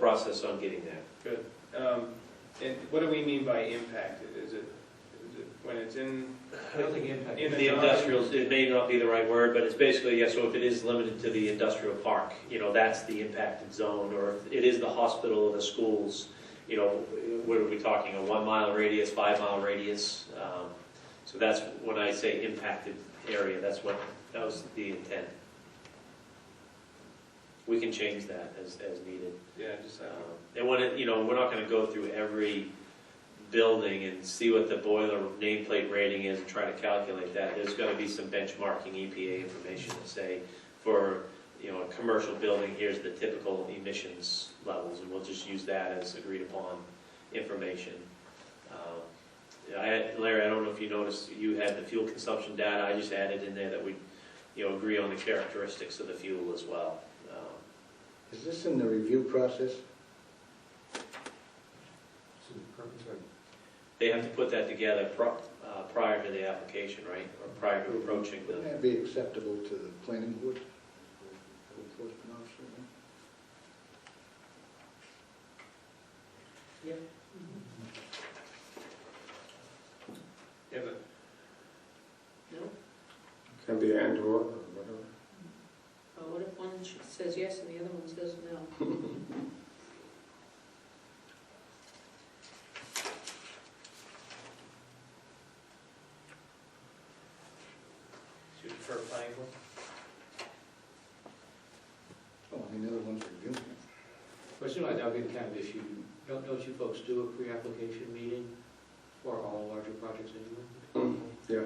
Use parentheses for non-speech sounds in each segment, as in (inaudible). process on getting that. Good. Um, And what do we mean by impact? Is it, is it when it's in, I don't think impact. In The industrial, it may not be the right word, but it's basically, yes, so if it is limited to the industrial park, you know, that's the impacted zone, or if it is the hospital or the schools, you know, what are we talking, a one-mile radius, five-mile radius? Um, So that's when I say impacted area, that's what, that was the intent. We can change that as, as needed. yeah, just, I Um, don't know. And when it, you know, we're not gonna go through every building and see what the boiler nameplate rating is and try to calculate that. There's gonna be some benchmarking EPA information to say, for, you know, a commercial building, here's the typical emissions levels, and we'll just use that as agreed upon information. Um, I, Larry, I don't know if you noticed, you had the fuel consumption data, I just added in there that we, you know, agree on the characteristics of the fuel as well. Um, Is this in the review process? So the permits are- They have to put that together pro- uh, prior to the application, right? Or prior to approaching Wouldn't the, that be acceptable to the planning board? Code enforcement officer, no? yeah, but Can be and or, or whatever. Well, Uh, what if one sh- says yes and the other one says no? should we prefer planning board? Oh, I mean, the other one's reviewing it. But you know, that'd be the kind of issue, don't, don't you folks do a pre-application meeting for all larger projects anyway? Mm, Yeah,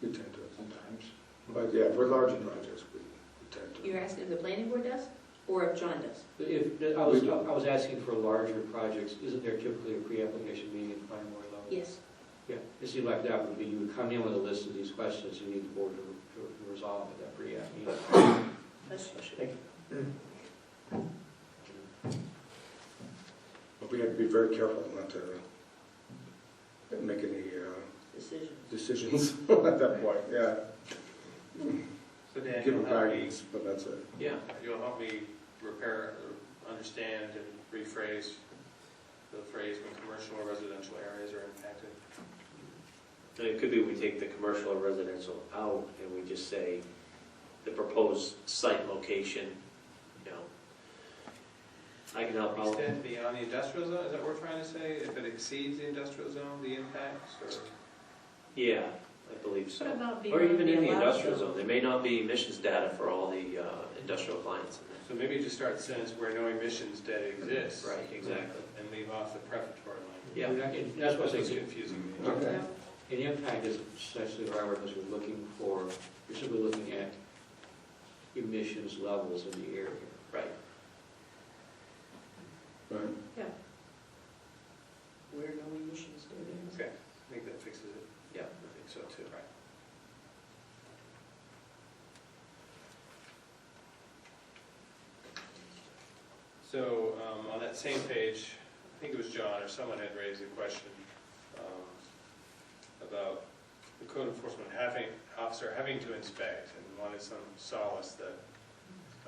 we tend to sometimes. But yeah, for larger projects, we we tend to. You're asking if the planning board does, or if John does? But If, I was, I was asking for larger projects, isn't there typically a pre-application meeting at the planning board level? Yes. Yeah, it seemed like that would be, you would come in with a list of these questions you need the board to, to resolve at that pre-app meeting. That's what should- But we have to be very careful not to make any uh, Decision. decisions (laughs) at that point, yeah. So Dan, Give you'll them help me, guidance, but that's it. yeah, you'll help me repair, or understand and rephrase the phrase when commercial or residential areas are impacted. And it could be we take the commercial or residential out and we just say the proposed site location, you know. I can help out. Extend beyond the industrial zone, is that what we're trying to say? If it exceeds the industrial zone, the impacts, or? Yeah, I believe What so. about being Or even in the allowed industrial to- zone, there may not be emissions data for all the uh, industrial clients in So maybe just start the sentence where no emissions data exists. there. Right, exactly. And leave off the prefatory language. Yeah. And that- and That's what I It's say, confusing me. Okay. Yeah. an impact is essentially the right word, because we're looking for, you're simply looking at emissions levels in the area. Right. Right. Where no emissions do this. Okay, I think that fixes it. Yeah, I think so too. Right. So um, on that same page, I think it was John or someone had raised a question um, about the code enforcement having, officer having to inspect and wanted some solace that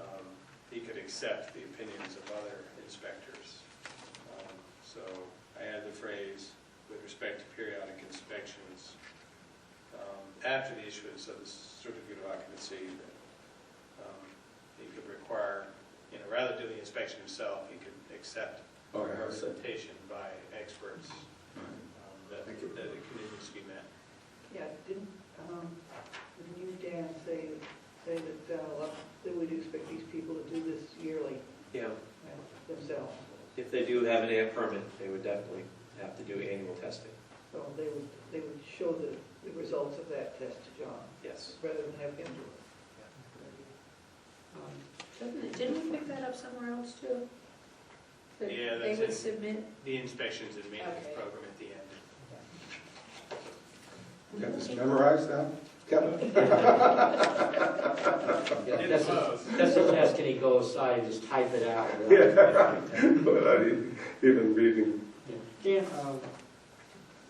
um, he could accept the opinions of other inspectors. Um, So I added the phrase, with respect to periodic inspections, um, after the issuance of the certificate of occupancy, that um, he could require, you know, rather than do the inspection himself, he could accept All right, that's it. representation by experts All right. um, that that Thank you. the conditions be met. Yeah, didn't, um, didn't you, Dan, say, say that, uh, well, they would expect these people to do this yearly Yeah, themselves? if they do have an air permit, they would definitely have to do annual testing, So they would, they would show the, the results of that test to John, yes. rather than have him do Um, Doesn't it, didn't we pick that up somewhere else too? That Yeah, They that's would it. submit, The inspections and maintenance Okay. program at the end. Got this memorized now? Kevin? Yeah, In that's, close. that's the test, can he go aside and just type it out? Without e- even reading. Dan, um,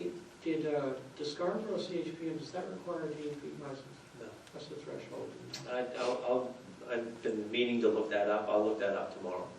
it- did uh, Discarboro CHPM, does that require a DEP license? No. What's the threshold? I, I'll, I'll- I've been meaning to look that up, I'll look that up tomorrow.